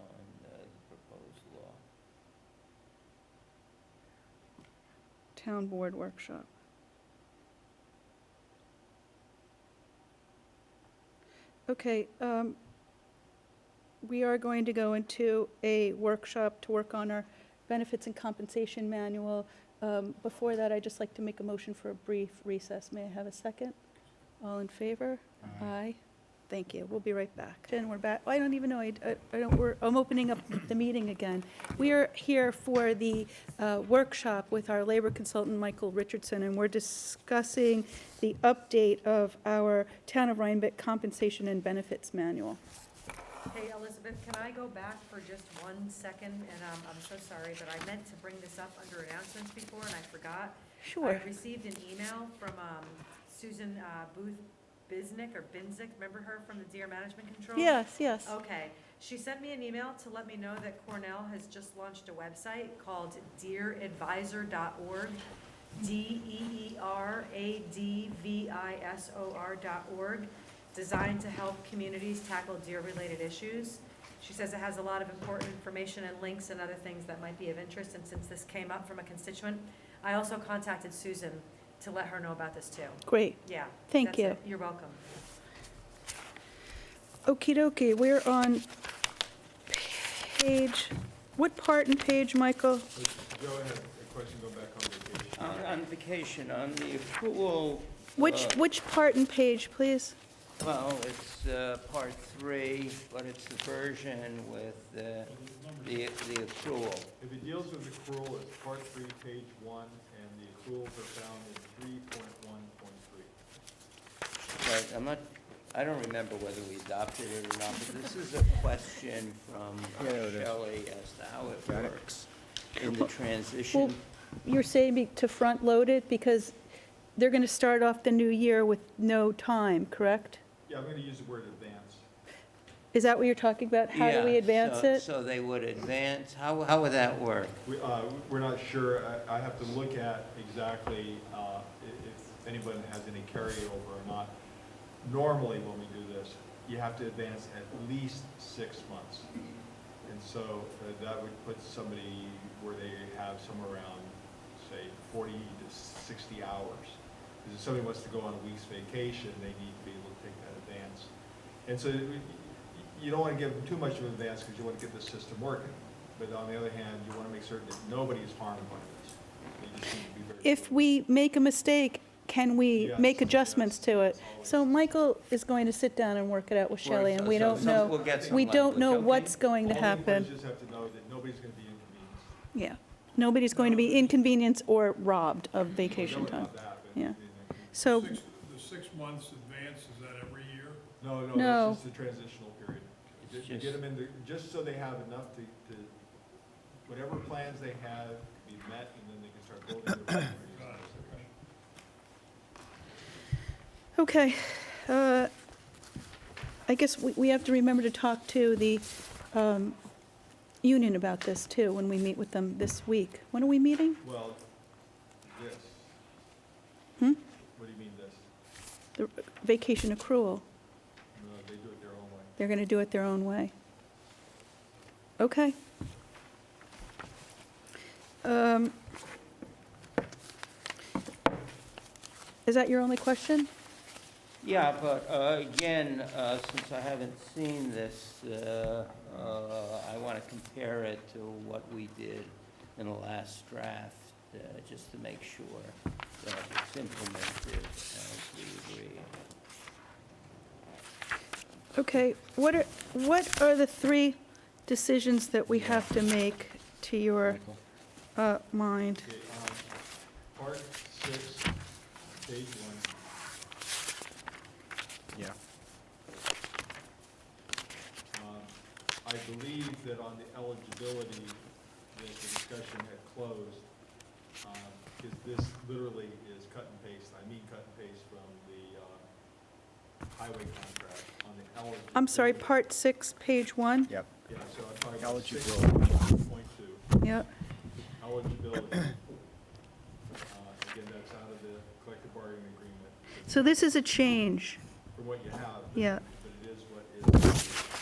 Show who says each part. Speaker 1: uh,
Speaker 2: town board workshop. Okay, um, we are going to go into a workshop to work on our benefits and compensation manual. Um, Before that, I'd just like to make a motion for a brief recess. May I have a second? All in favor?
Speaker 1: Aye.
Speaker 2: Aye. Thank you. We'll be right back. Jen, we're back. I don't even know, I, I- I don't, we're, I'm opening up the meeting again. We are here for the uh, workshop with our labor consultant, Michael Richardson, and we're discussing the update of our Town of Rhinebeck Compensation and Benefits Manual.
Speaker 3: Hey, Elizabeth, can I go back for just one second? And um, I'm so sorry, but I meant to bring this up under announcements before and I forgot. I received an email from um, Susan uh, Booth Biznick or Binzick, remember her from the Deer Management Control?
Speaker 2: Yes, yes.
Speaker 3: Okay, she sent me an email to let me know that Cornell has just launched a website called deeradvisor.org. E D-E-E-R-A-D-V-I-S-O-R dot org, designed to help communities tackle deer-related issues. She says it has a lot of important information and links and other things that might be of interest, and since this came up from a constituent, I also contacted Susan to let her know about this too.
Speaker 2: Great.
Speaker 3: Yeah.
Speaker 2: Thank
Speaker 3: that's it. You're welcome.
Speaker 2: Okey dokey, we're on page, what part and page, Michael?
Speaker 4: Go ahead, a question, go back on vacation.
Speaker 1: On on vacation, on the accrual.
Speaker 2: Uh-huh. Which,
Speaker 1: uh,
Speaker 2: which part and page, please?
Speaker 1: Well, it's uh, part three, but it's the version with uh, the the accrual.
Speaker 4: If it deals with accrual, it's part three, page one, and the accruals are found in three point one point three.
Speaker 1: But I'm not, I don't remember whether we adopted it or not, but this is a question from
Speaker 5: Yeah, it is.
Speaker 1: Shelley as to how it works in the
Speaker 2: Well,
Speaker 1: transition.
Speaker 2: you're saying be- to front-load it because they're going to start off the new year with no time, correct?
Speaker 4: Yeah, I'm gonna use the word advance.
Speaker 2: Is that what you're talking about? How do we
Speaker 1: Yeah,
Speaker 2: advance
Speaker 1: so-
Speaker 2: it?
Speaker 1: So they would advance, how, how would that work?
Speaker 4: We, uh, we're not sure, I, I have to look at exactly, uh, if, if anyone has any carryover or not. Normally, when we do this, you have to advance at least six months. And so uh, that would put somebody where they have somewhere around, say, forty to sixty hours. Because if somebody wants to go on a week's vacation, they need to be able to take that advance. And so you- you don't want to give them too much of an advance because you want to get the system working. But on the other hand, you want to make certain that nobody is harmed by this. They just need to be very
Speaker 2: If
Speaker 4: aware.
Speaker 2: we make a mistake, can we
Speaker 4: Yes,
Speaker 2: make adjustments
Speaker 4: yes,
Speaker 2: to it?
Speaker 4: always.
Speaker 2: So Michael is going to sit down and work it out with Shelley, and
Speaker 1: So-
Speaker 2: we
Speaker 1: so
Speaker 2: don't
Speaker 1: some- we'll
Speaker 2: know,
Speaker 1: get some
Speaker 2: we don't
Speaker 1: language,
Speaker 2: know
Speaker 1: okay?
Speaker 2: what's going to
Speaker 4: All the employees
Speaker 2: happen.
Speaker 4: just have to know that nobody's going to be inconvenienced.
Speaker 2: Yeah. Nobody's going to be inconvenienced or robbed of vacation
Speaker 4: Nobody
Speaker 2: time.
Speaker 4: about that, but-
Speaker 2: Yeah. So,
Speaker 6: Six- The six months advance, is that every year?
Speaker 4: No, no,
Speaker 2: No.
Speaker 4: that's just the transitional period.
Speaker 1: It's
Speaker 4: You
Speaker 1: just-
Speaker 4: get them in the, just so they have enough to, to, whatever plans they have be met, and then they can start building their. priorities.
Speaker 2: okay. uh, I guess we we have to remember to talk to the um, union about this, too, when we meet with them this week. When are we meeting?
Speaker 4: Well, this.
Speaker 2: Hmm?
Speaker 4: What do you mean this?
Speaker 2: The Vacation accrual.
Speaker 4: No, they do it their own way.
Speaker 2: They're going to do it their own way. Okay. Um, Is that your only question?
Speaker 1: Yeah, but uh, again, uh, since I haven't seen this, uh, uh, I want to compare it to what we did in the last draft, uh, just to make sure that it's implemented as we agree.
Speaker 2: Okay, what are, what are the three decisions that we have to make to your
Speaker 1: Michael?
Speaker 2: uh, mind?
Speaker 4: Okay, um, part six, page one.
Speaker 5: Yeah.
Speaker 4: Um, I believe that on the eligibility, that the discussion had closed, because this literally is cut and paste, I mean cut and paste from the uh, highway contract on the eligibility.
Speaker 2: I'm sorry, part six, page one?
Speaker 5: Yep.
Speaker 4: Yeah, so I'm talking about six
Speaker 5: Eligibility.
Speaker 4: point two,
Speaker 2: Yep,
Speaker 4: eligibility. Uh, Again, that's out of the collective bargaining agreement,
Speaker 2: so this is a change,
Speaker 4: from what you have.
Speaker 2: Yeah.
Speaker 4: But it is what is.